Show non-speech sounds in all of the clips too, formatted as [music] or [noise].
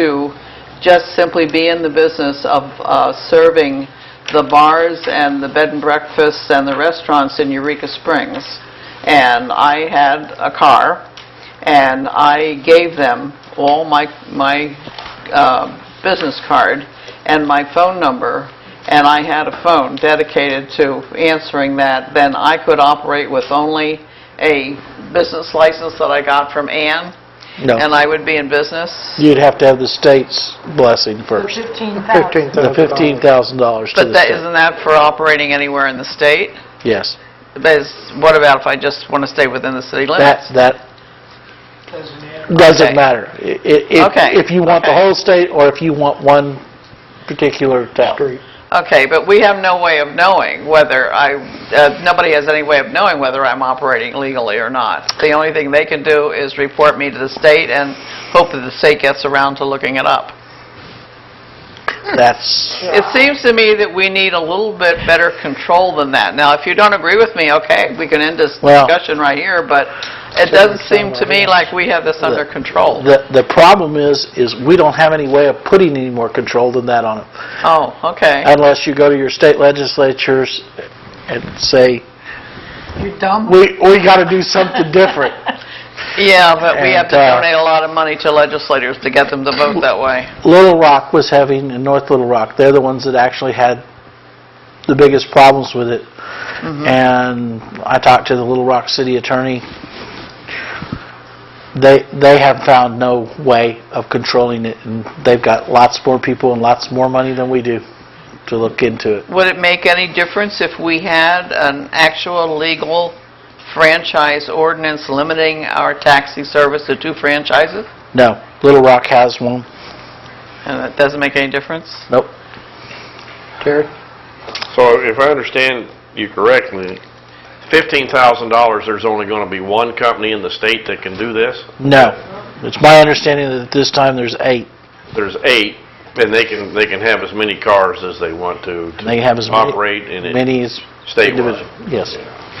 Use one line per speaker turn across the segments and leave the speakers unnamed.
to just simply be in the business of uh, serving the bars and the bed and breakfasts and the restaurants in Eureka Springs. And I had a car, and I gave them all my, my uh, business card and my phone number, and I had a phone dedicated to answering that, then I could operate with only a business license that I got from Ann,
No.
and I would be in business.
You'd have to have the state's blessing first.
Fifteen
15,000.
The
thousand.
$15,000 to the state.
But that, isn't that for operating anywhere in the state?
Yes.
But is- what about if I just want to stay within the city
That,
limits?
that
Okay.
doesn't matter. I- i- If,
Okay.
if you want the
Okay.
whole state or if you want one particular town.
Okay, but we have no way of knowing whether I, uh, nobody has any way of knowing whether I'm operating legally or not. The only thing they can do is report me to the state and hope that the state gets around to looking it up.
That's,
It seems to me that we need a little bit better control than that. Now, if you don't agree with me, okay, we can end this
Well-
discussion right here, but it doesn't seem to me like we have this under control.
the, the problem is, is we don't have any way of putting any more control than that on them.
Oh, okay.
Unless you go to your state legislatures and say,
You're dumb.
we, we got to do something different.
Yeah, but we have to
And, uh,
donate a lot of money to legislators to get them to vote that way.
Little Rock was having, in North Little Rock, they're the ones that actually had the biggest problems with it. And I talked to the Little Rock city attorney. They, they have found no way of controlling it, and they've got lots more people and lots more money than we do to look into it.
Would it make any difference if we had an actual legal franchise ordinance limiting our taxi service to two franchises?
No, Little Rock has one.
And that doesn't make any difference?
Nope. Terry?
So if I understand you correctly, $15,000, there's only going to be one company in the state that can do this?
No. It's my understanding that at this time, there's eight.
There's eight, and they can, they can have as many cars as they want to. to
They have as many-
Operate in it.
Many is...
Statewide.
individual- Yes.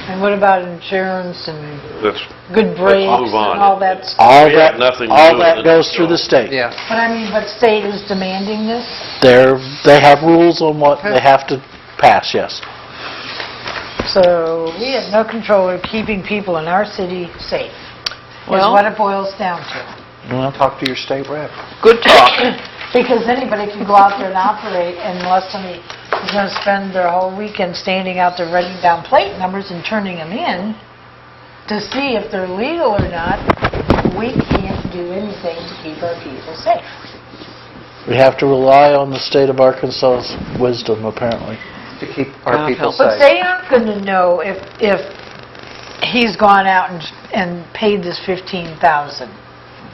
And what about insurance and
That's,
good breaks
move
and
on.
all that stuff?
All
We have
that,
nothing to do
all
with
that
it,
goes through
so-
the state.
Yeah.
But I mean, but state is demanding this?
They're, they have rules on what they have to pass, yes.
So we have no control of keeping people in our city safe, is
Well-
what it boils down to.
Well,
Talk to your state rep.
Good talk.
[coughs]
[clears throat] Because anybody can go out there and operate unless somebody is going to spend their whole weekend standing out there writing down plate numbers and turning them in to see if they're legal or not. We can't do anything to keep our people safe.
We have to rely on the state of Arkansas's wisdom, apparently.
To keep
Not
our people
helpful.
But
safe.
they aren't going to know if, if he's gone out and, and paid this 15,000.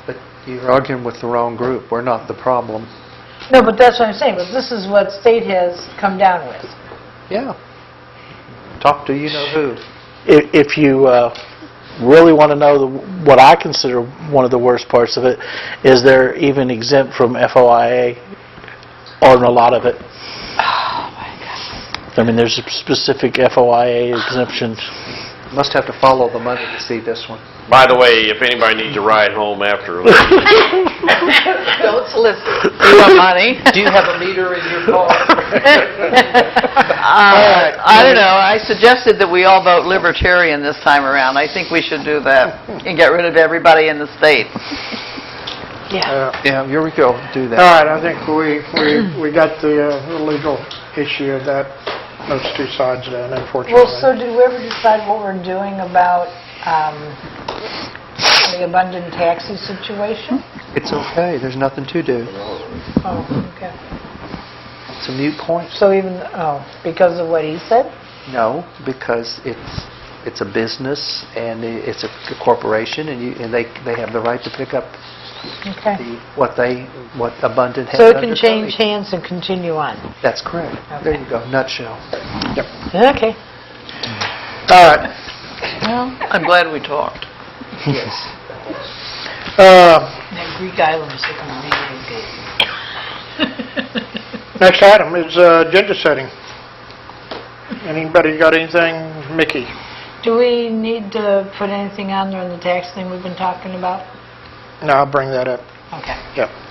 But you're arguing with the wrong group. We're not the problem.
No, but that's what I'm saying, but this is what state has come down with.
Yeah. Talk to you know who.
If, if you uh, really want to know the- what I consider one of the worst parts of it, is they're even exempt from FOIA on a lot of it. Oh, my God. I mean, there's a specific FOIA exemption.
Must have to follow the money to see this one.
by the way, if anybody needs a ride
[laughs]
home after, I
Don't solicit. You want money?
Do you have a meter in your
[laughs]
car?
Uh, I don't know, I suggested that we all vote libertarian this time around. I think we should do that and get rid of everybody in the state.
Yeah.
Yeah, here we go. Do
All
that.
right, I think we, we, we got the uh, legal issue of that, those two sides done, unfortunately.
Well, so did we ever decide what we're doing about um, the abundant taxi situation?
It's okay. There's nothing to do.
Oh, okay.
It's a mute point.
So even, oh, because of what he said?
No, because it's, it's a business and i- it's a corporation and you, and they, they have the right to pick up
Okay.
the, what they, what abundant has
So it can
under belly.
change hands and continue on?
That's correct. There you go, nutshell.
Okay.
All right,
I'm glad we talked.
uh,
That Greek island is looking really good.
next item is uh, agenda setting. Anybody got anything? Mickey?
[laughs] Do we need to put anything on there on the tax thing we've been talking about?
No, I'll bring that up.
Okay.
Yep.